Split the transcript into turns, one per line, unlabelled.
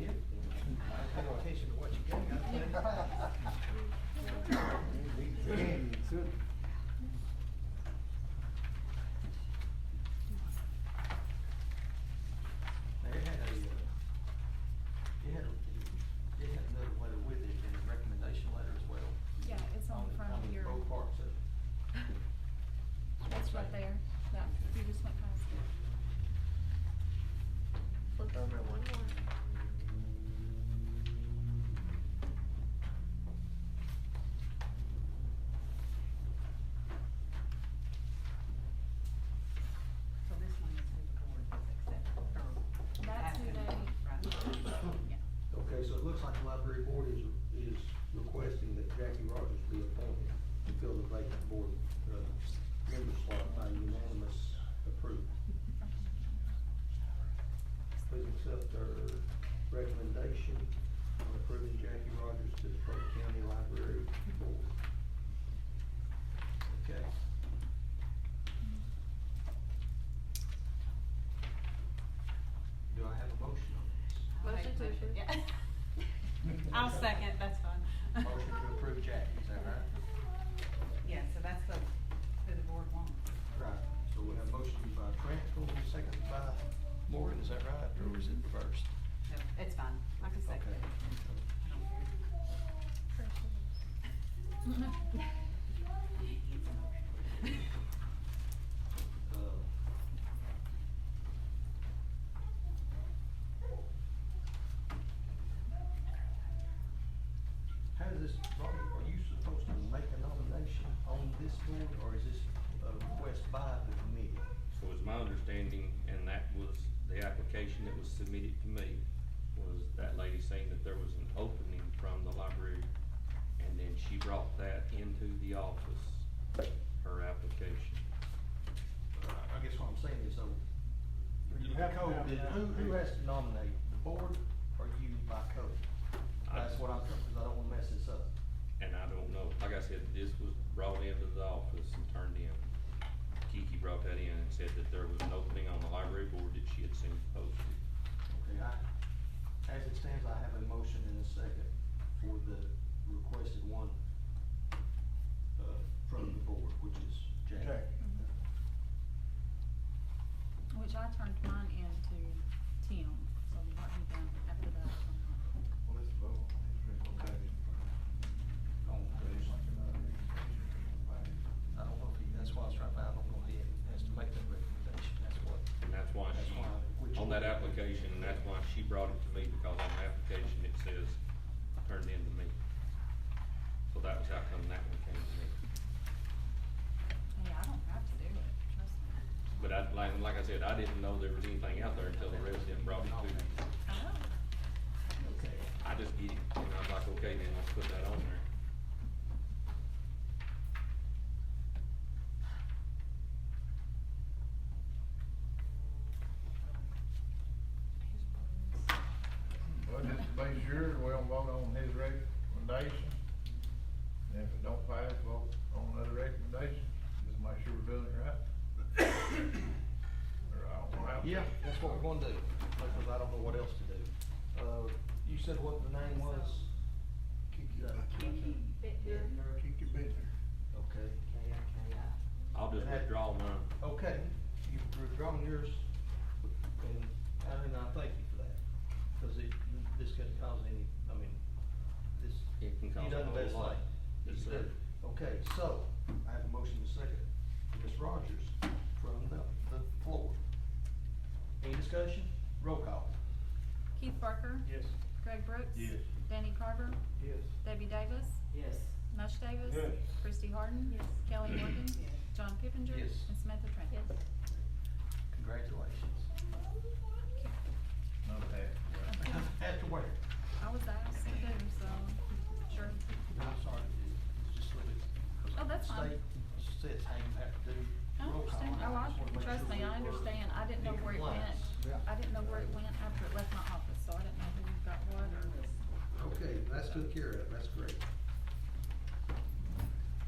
you. I pay attention to what you got. They had a, uh, they had, a they had another letter with it and a recommendation letter as well.
Yeah, it's on the front of your,
On both parts of it.
that's right there, that, you just went past it.
Flip over one more.
So this one is who the board is accepting from.
That's who they, yeah,
Okay, so it looks like the library board is, is requesting that Jackie Rogers be appointed to fill the vacant board, uh, member slot by unanimous approval. Please accept our recommendation on approving Jackie Rogers to the Polk County Library Board.
Okay. Do I have a motion on this?
Motion to approve.
Yeah. I'll second, that's fine.
Motion to approve Jackie, is that right?
Yeah, so that's the, who the board wants.
Right, so we have a motion by Crankle, and a second by Morgan, is that right, or is it reversed?
No, it's fine, I can second
Okay.
it. I don't care.
Uh, How does this, Robbie, are you supposed to make a nomination on this board, or is this a request by the committee?
So it's my understanding, and that was the application that was submitted to me, was that lady saying that there was an opening from the library, and then she brought that into the office, her application.
I guess what I'm saying is, so, you have code, then who, who has to nominate, the board or you by code? That's what I'm, because I don't want to mess this up.
And I don't know, like I said, this was brought into the office and turned in. Kiki brought that in and said that there was an opening on the library board that she had seen posted.
Okay, I, as it stands, I have a motion and a second for the requested one, uh, from the board, which is Jack.
Jack.
which I turned mine in to Tim, so mark me down after that.
Well, let's vote.
Okay. Don't- I don't know if he, that's why I was trying to find, I don't know if he has to make that recommendation, that's what.
And that's why
That's why, which-
she, on that application, and that's why she brought it to me, because on the application it says, turned in to me. So that was how come that one came to me.
Hey, I don't have to do it, trust me.
But I, like, like I said, I didn't know there was anything out there until the resident brought it to me.
I know.
Okay.
I just get it, and I was like, okay, then let's put that on there.
Well, just to be sure, we don't vote on his recommendation. And if it don't pass, vote on another recommendation, just make sure we're doing it right. Or I don't know how to-
Yeah, that's what we're gonna do, because I don't know what else to do. Uh, you said what the name was? Kiki. uh,
Kiki Bittner.
Kiki Bittner.
Okay, uh,
K-I-K-I.
I'll just
And that- Oh,
withdraw mine.
okay, you've withdrawn yours, and Alan, I thank you for that, because it, this can cause any, I mean, this,
It can
you
cause
done
a
the
whole
best
lot.
thing.
Yes,
You did. Okay, so, I have a motion to second, Ms. Rogers from the, the floor. Any discussion? Roll call.
Keith Barker.
Yes.
Greg Brooks.
Yes.
Danny Carver.
Yes.
Debbie Davis.
Yes.
Mush Davis.
Yes.
Christie Harden.
Yes.
Kelly Morgan.
Yes.
John Pippinger.
Yes.
And Samantha Trent.
Yes.
Congratulations.
Not that. right.
After where?
I was asked to do, so, sure.
No, I'm sorry, it's just really. 'cause
Oh, that's fine.
State says how you have to do
I
roll call,
understand,
and
oh,
I just wanna
I,
make
trust
sure
me,
we
I
were
understand, I didn't
in
know where it went.
compliance.
I didn't know where it went after it left my office, so I didn't know who got what or.
Okay, that's took care of, that's great.